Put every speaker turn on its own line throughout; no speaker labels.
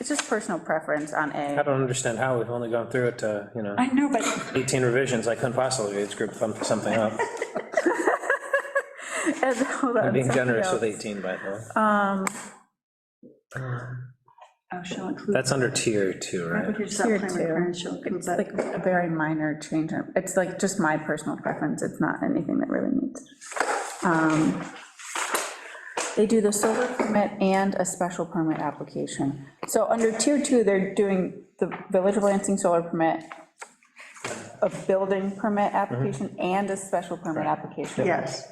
It's just personal preference on
I
A.
don't understand how, we've only gone through it, uh, you know,
I know, but
18 revisions, I couldn't possibly age group thumb- something up.
And- hold on,
I'm being
something
generous with
else.
18, by the way.
Um,
Oh, shall include.
That's under tier two, right?
Language that
Tier
plan
two.
requirements shall include
It's
but-
like a very minor change. It's like just my personal preference. It's not anything that really needs. Um, They do the solar permit and a special permit application. So under tier two, they're doing the Village of Lansing solar permit, a building permit application, and a special permit application.
Yes.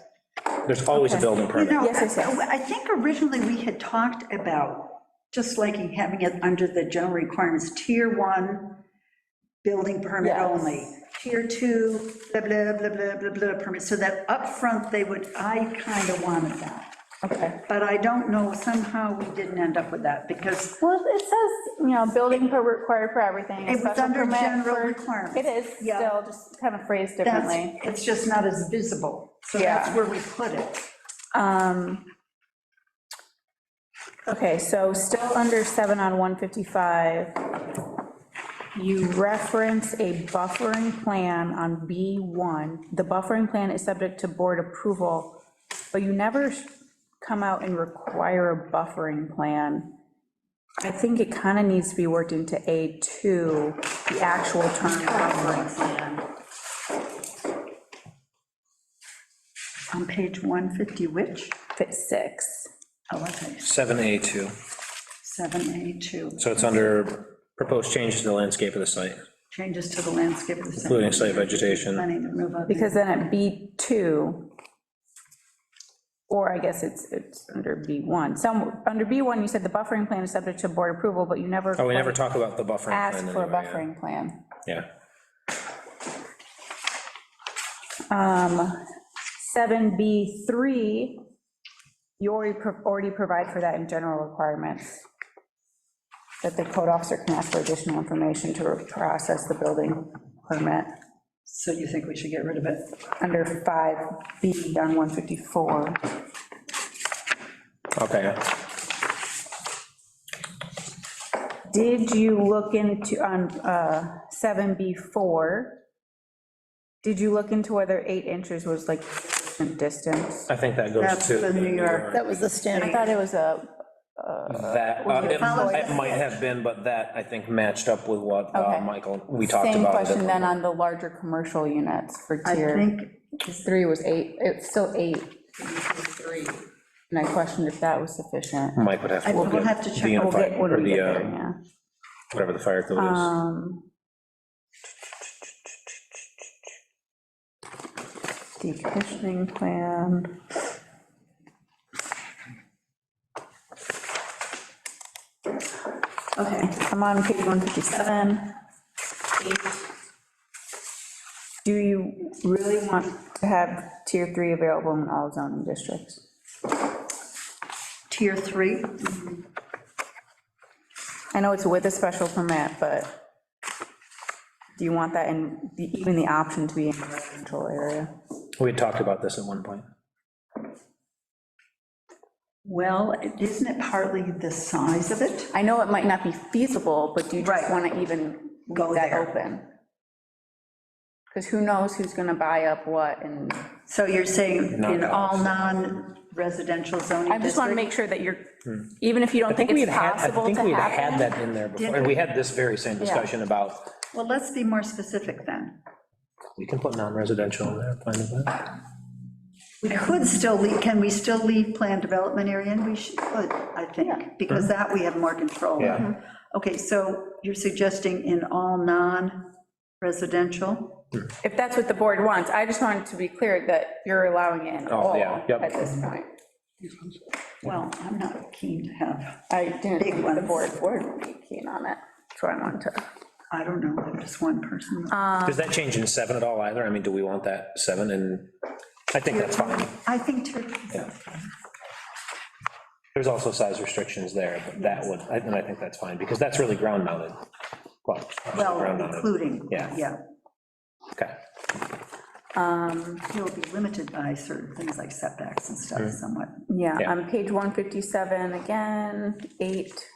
There's always a
Okay.
building
You
permit.
know,
Yes, yes, yes.
I think originally we had talked about, just like having it under the general requirements, tier one, building permit
Yes.
only, tier two, blah, blah, blah, blah, blah, blah, permit, so that upfront they would, I kind of wanted that.
Okay.
But I don't know, somehow we didn't end up with that, because
Well, it says, you know, building per required for everything. a
It was
special
under
permit
general
for-
requirements.
It is
Yeah.
still just kind of phrased
that's,
differently.
it's just not as visible. So that's
Yeah.
where we put it.
Um, Okay, so still under 7 on 155, you reference a buffering plan on B1. The buffering plan is subject to board approval, but you never sh- come out and require a buffering plan. I think it kind of needs to be worked into A2, the actual term buffering plan.
On page 150, which?
Fit six.
Oh, okay,
7A2,
7A2,
so it's under proposed changes to the landscape of the site.
changes to the landscape of the. center.
Including site vegetation.
Planning to move up.
Because then at B2, or I guess it's, it's under B1, some, under B1, you said the buffering plan is subject to board approval, but you never.
Oh, we never talk about the buffering plan
Asked for a
anyway, yeah.
buffering plan.
Yeah.
Um, 7B3, you already, pro- already provide for that in general requirements, that the code officer can ask for additional information to process the building permit,
So you think we should get rid of it?
under 5B on 154.
Okay,
Did you look into, on uh, 7B4, did you look into whether eight inches was like sufficient distance?
I think that goes
That's
to.
the New York.
That was the
I
standard.
thought it was a,
That, uh, it
Follow
it might have been, but that, I think, matched up with what uh,
Okay.
Michael, we talked
same
about.
question then on the larger commercial units for
I
tier,
think,
because three was eight, it's still eight. And I questioned if that was sufficient.
Mike would have to
I-
look
we'll
at
have to
the
check. We'll
We'll
unified,
get, when
or
we get
the,
there,
uh,
yeah.
whatever the fire code is.
Um, Decommissioning plan. Okay, I'm on page 157. Do you really want to have tier three available in all zoning districts?
tier three,
I know it's with a special permit, but do you want that in, the- even the option to be in a residential area?
We had talked about this at one point.
well, isn't it partly the size of it?
I know it might not be feasible, but do you just
Right.
want to even
Go
leave that
there.
open? Because who knows who's going to buy up what, and
So you're saying
Not
in all
us.
non-residential zoning
I just want to
districts?
make sure that you're, even if you don't
Hmm. I think
think
we
it's
had had, I
possible to
think we had had
happen.
that in there before, and we had this very same discussion about,
Well, let's be more specific then.
we can put non-residential in there, plan development.
We could still leave, can we still leave planned development area in? We should, could, I think, because that we have more control. over.
Yeah.
Okay, so you're suggesting in all non-residential?
If that's what the board wants, I just wanted to be clear that you're allowing it in
Oh,
all
yeah, yep.
at this point.
Well, I'm not keen to have,
I didn't
Big
think the
ones.
board would be keen on it, that's why I wanted to.
I don't know, I'm just one person.
Does that change in seven at all either? I mean, do we want that seven? And I think that's fine.
I think Turkey,
There's also size restrictions there, but that would, I- and I think that's fine, because that's really ground mounted. Well, obviously ground
well,
mounted,
including,
Yeah.
yeah,
okay.
he'll be limited by certain things like setbacks and stuff somewhat.
Yeah, Um,
Yeah.
on page 157, again, eight,